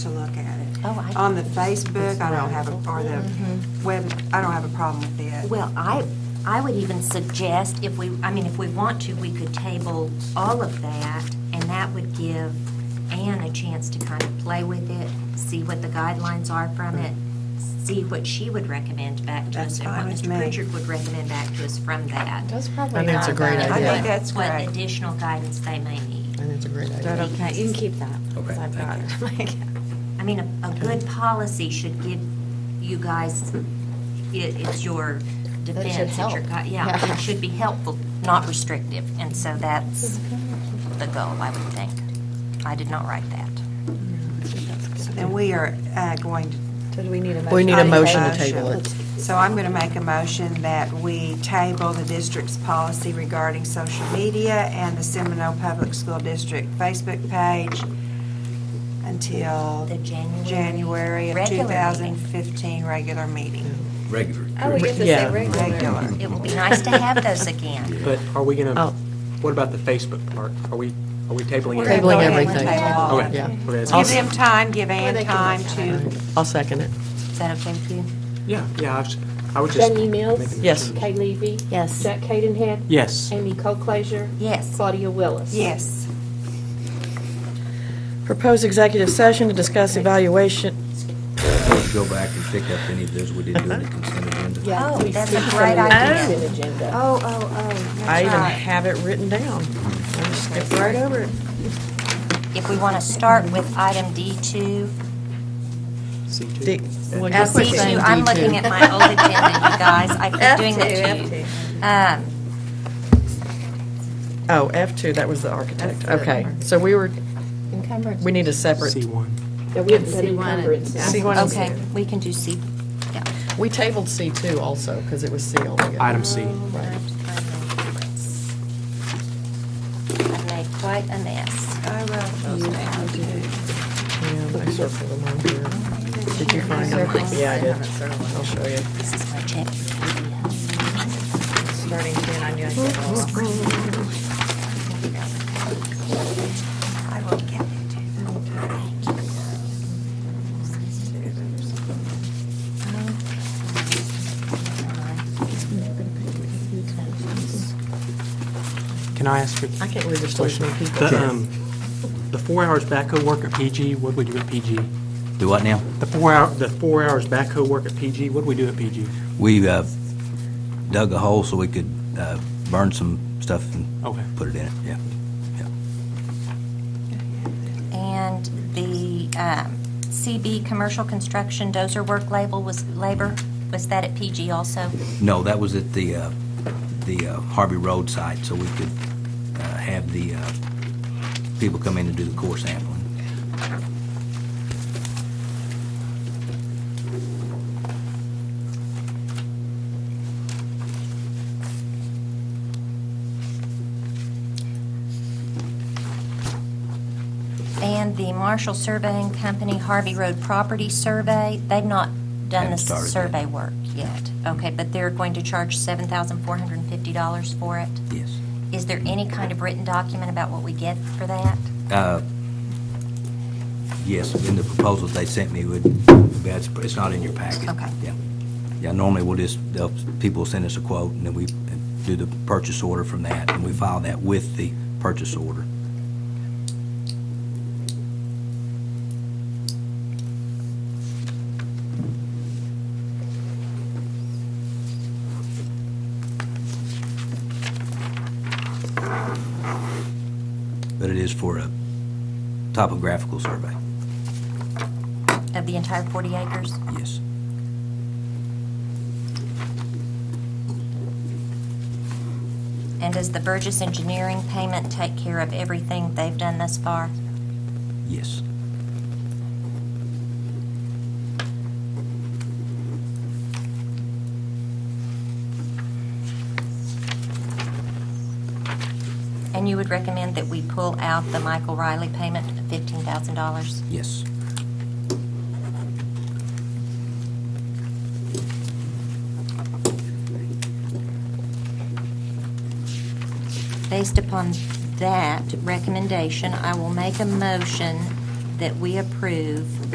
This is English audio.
to look at it. Oh, I- On the Facebook, I don't have, a or the web, I don't have a problem with it. Mm-hmm. Well, I, I would even suggest if we, I mean, if we want to, we could table all of that, and that would give Anne a chance to kind of play with it, see what the guidelines are from it, see what she would recommend back to That's us, and what fine with Mr. me. Pritchard would recommend back to us from that. uh, That's probably I think it's not a great bad. I idea. think that's What great. additional guidance they may need. I think it's a great But idea. okay, you can keep that. 'cause Okay, I've got thank it. I mean, a, a good policy should give you guys, it, it's your defense. it's your help. gui- Yeah, Yeah. it should be helpful, not restrictive, and so that's the goal, I would think. I did not write that. And we are uh, going to. So do we need a motion? We need a I motion to motion. table it. So I'm going to make a motion that we table the district's policy regarding social media and the Seminole Public School District Facebook page until The January- January of Regular meeting. 2015 regular meeting. Regular. Oh, we get to say Yeah. regular. Regular. It would be nice to have those again. But are we gonna, Oh. what about the Facebook part? Are we, are we tabling We're gonna it? go Tabling ahead and everything. table all of Okay. it. Yeah. Okay, that's- Give them time, give Ann they can time look to. I'll second it. Is that okay with you? Yeah, yeah, I was, I was just. Jenny Mills. making a Yes. Kay Levy. Yes. Jack Cadenhead. Yes. Amy Coclaser. Yes. Claudia Willis. Yes. Propose executive session to discuss evaluation, Let's Go back and pick up any of those we didn't do in the consent agenda. Yeah, Oh, we that's see a some great of the idea. consent agenda. Oh, oh, oh, I that's even right. have it written down. I just skipped right over it. If we want to start with item D2. C2. The- well, Uh, just quit C2, saying I'm D2. looking at my old agenda, you guys. I keep doing that to you. Um, Oh, F2, that was the architect. Okay, so we were, Encumbrance. we need a separate, C1. Now, we have the encumbrances. C1 and Okay, we can do C, yeah. We tabled C2 also, because it was C only. Item C. I've made quite a mess. I wrote those down too. Yeah, I circled them on here. Did you find them? Yeah, I did. I'll show you. This is my check. Starting soon, I knew I said all. I will get it. Can I ask for? I can't believe there's still so many people. The, um, the four hours backhoe work at PG, what do we do at PG? Do what now? The four hour, the four hours backhoe work at PG, what do we do at PG? We uh, dug a hole so we could uh, burn some stuff Okay. and put it in it, yeah. yeah. And the um, CB, commercial construction dozer work label was labor, was that at PG also? No, that was at the, uh, the uh, Harvey Road site, so we could uh, have the uh, people come in and do the core sampling. And the Marshall Surveying Company Harvey Road Property Survey, they've not done the Haven't started yet. survey work yet. Okay, but they're going to charge $7,450 for it? Yes. Is there any kind of written document about what we get for that? Uh, Yes, in the proposals they sent me would, that's- it's not in your packet. Okay. Yeah. Yeah, normally we'll just, they'll- people send us a quote, and then we do the purchase order from that, and we file that with the purchase order. But it is for a topographical survey, Of the entire 40 acres? yes. And does the Burgess Engineering payment take care of everything they've done thus far? Yes. And you would recommend that we pull out the Michael Riley payment of $15,000? Yes. Based upon that recommendation, I will make a motion that we approve